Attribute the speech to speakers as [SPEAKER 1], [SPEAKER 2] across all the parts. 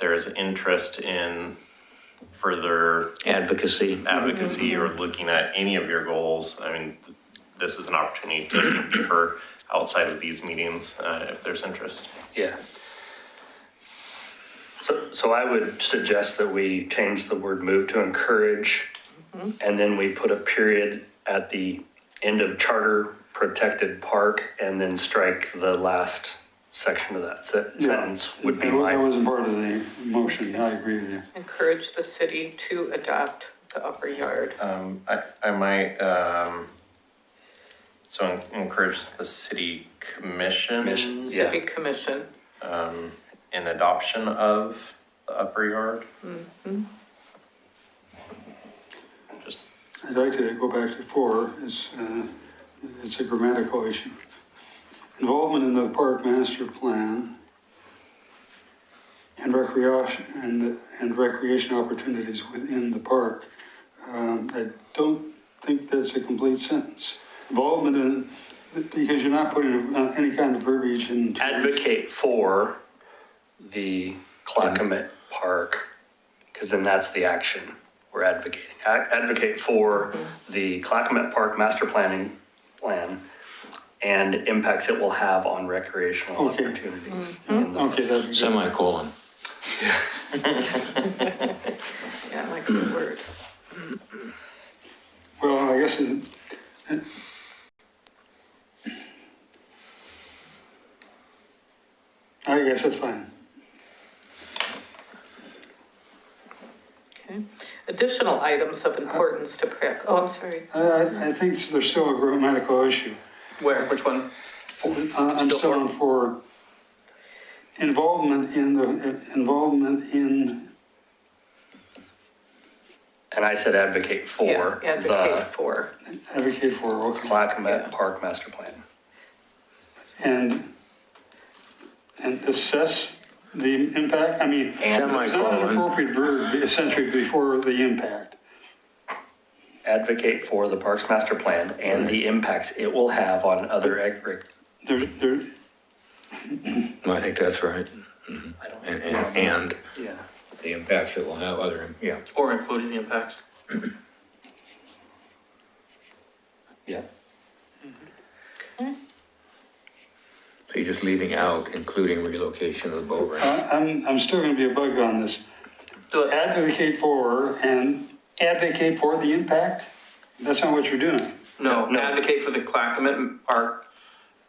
[SPEAKER 1] there is interest in further
[SPEAKER 2] advocacy.
[SPEAKER 1] advocacy or looking at any of your goals, I mean, this is an opportunity to get deeper outside of these meetings, uh, if there's interest.
[SPEAKER 3] Yeah. So, so I would suggest that we change the word move to encourage, and then we put a period at the end of charter protected park, and then strike the last section of that se-
[SPEAKER 4] Yeah.
[SPEAKER 3] sentence would be
[SPEAKER 4] That was- That
[SPEAKER 3] my,
[SPEAKER 4] was part of the motion, I agree with you.
[SPEAKER 5] Encourage the city to adopt the upper yard.
[SPEAKER 1] Um, I, I might, um, so encourage the city
[SPEAKER 3] Commission,
[SPEAKER 1] commission
[SPEAKER 3] yeah.
[SPEAKER 5] City commission.
[SPEAKER 1] in adoption of the upper yard. Just
[SPEAKER 4] I'd like to go back to four, it's, uh, it's a grammatical issue. Involvement in the park master plan and recreation, and, and recreation opportunities within the park. Um, I don't think that's a complete sentence. Involvement in, because you're not putting uh, any kind of verbiage in.
[SPEAKER 3] advocate for the Clackamas Park, because then that's the action we're advocating. A- Advocate for the Clackamas Park master planning plan and impacts it will have on recreational
[SPEAKER 4] Okay.
[SPEAKER 3] opportunities.
[SPEAKER 5] Mm-hmm.
[SPEAKER 3] in the-
[SPEAKER 4] Okay, that'd be good.
[SPEAKER 2] Semicolon.
[SPEAKER 5] Yeah, I like the word.
[SPEAKER 4] Well, I guess it, it- I guess that's fine.
[SPEAKER 5] Okay. Additional items of importance to prac, oh, I'm sorry.
[SPEAKER 4] I, I, I think there's still a grammatical issue.
[SPEAKER 5] Where, which one?
[SPEAKER 4] I- I'm still on for involvement in the, involvement in,
[SPEAKER 3] And I said advocate for
[SPEAKER 5] Yeah,
[SPEAKER 3] the
[SPEAKER 5] advocate for.
[SPEAKER 4] advocate for, okay.
[SPEAKER 3] Clackamas
[SPEAKER 5] Yeah.
[SPEAKER 3] Park master plan.
[SPEAKER 4] And, and assess the impact, I mean, it's not an
[SPEAKER 2] Semicolon.
[SPEAKER 4] appropriate verb essentially before the impact.
[SPEAKER 3] Advocate for the Parks master plan and the impacts it will have on other, ag-
[SPEAKER 4] There, there,
[SPEAKER 2] I think that's right. Mm-hmm.
[SPEAKER 3] I don't,
[SPEAKER 2] And, and, and
[SPEAKER 3] yeah.
[SPEAKER 2] the impacts it will have other, yeah.
[SPEAKER 6] Or including the impacts.
[SPEAKER 3] Yeah.
[SPEAKER 2] So you're just leaving out including relocation of the boat ramp.
[SPEAKER 3] Uh-huh.
[SPEAKER 4] I- I'm, I'm still gonna be a bug on this.
[SPEAKER 6] Do it.
[SPEAKER 4] advocate for and advocate for the impact? That's not what you're doing.
[SPEAKER 6] No,
[SPEAKER 3] No.
[SPEAKER 6] advocate for the Clackamas Park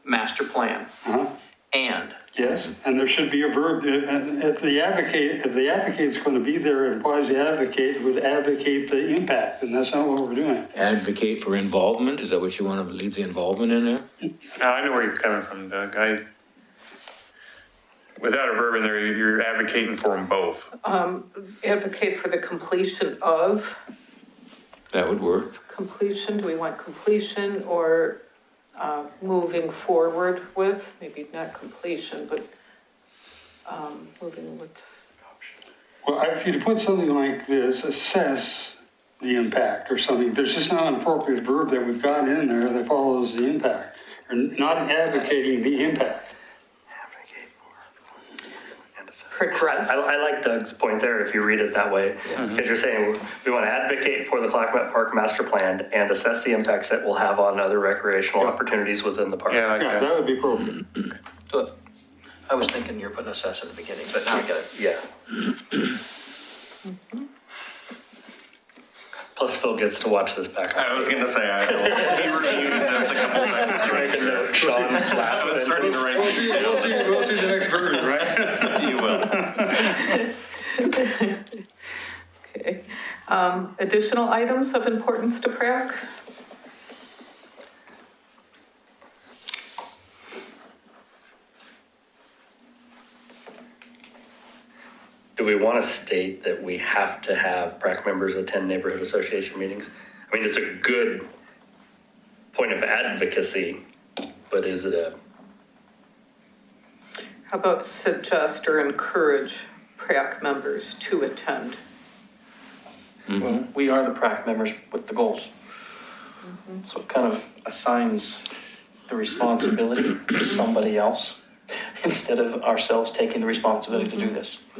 [SPEAKER 6] master plan
[SPEAKER 4] Uh-huh.
[SPEAKER 6] and
[SPEAKER 4] Yes, and there should be a verb, uh, if the advocate, if the advocate's going to be there, it implies the advocate would advocate the impact, and that's not what we're doing.
[SPEAKER 2] Advocate for involvement, is that what you want to leave the involvement in there?
[SPEAKER 7] Now, I know where you're coming from, Doug. I, without a verb in there, you're advocating for them both.
[SPEAKER 5] Advocate for the completion of,
[SPEAKER 2] That would work.
[SPEAKER 5] completion, do we want completion or uh, moving forward with? Maybe not completion, but um, moving with,
[SPEAKER 4] Well, I- if you put something like this, assess the impact or something, there's just not an appropriate verb that we've got in there that follows the impact. You're not advocating the impact.
[SPEAKER 3] Advocate for and assess.
[SPEAKER 5] progress.
[SPEAKER 3] I, I like Doug's point there, if you read it that way, because you're saying we want to advocate for the Clackamas Park master plan and assess the impacts it will have on other recreational opportunities within the park.
[SPEAKER 7] Yeah, like
[SPEAKER 4] Yeah,
[SPEAKER 7] that.
[SPEAKER 4] that would be appropriate.
[SPEAKER 6] do it. I was thinking you're putting a S at the beginning, but now I get it.
[SPEAKER 3] Yeah. Plus Phil gets to watch this back.
[SPEAKER 7] I was gonna say, I will be reviewing this a couple times.
[SPEAKER 3] Making note, Sean's last
[SPEAKER 7] I was starting to
[SPEAKER 3] sentence.
[SPEAKER 7] write these
[SPEAKER 4] We'll see, we'll see the next verb, right?
[SPEAKER 7] down. You will.
[SPEAKER 5] Okay. Um, Additional items of importance to PrAC?
[SPEAKER 3] Do we want to state that we have to have PrAC members attend neighborhood association meetings? I mean, it's a good point of advocacy, but is it a
[SPEAKER 5] How about suggest or encourage PrAC members to attend?
[SPEAKER 6] Well, We are the PrAC members with the goals. So it kind of assigns the responsibility to somebody else instead of ourselves taking the responsibility to do this.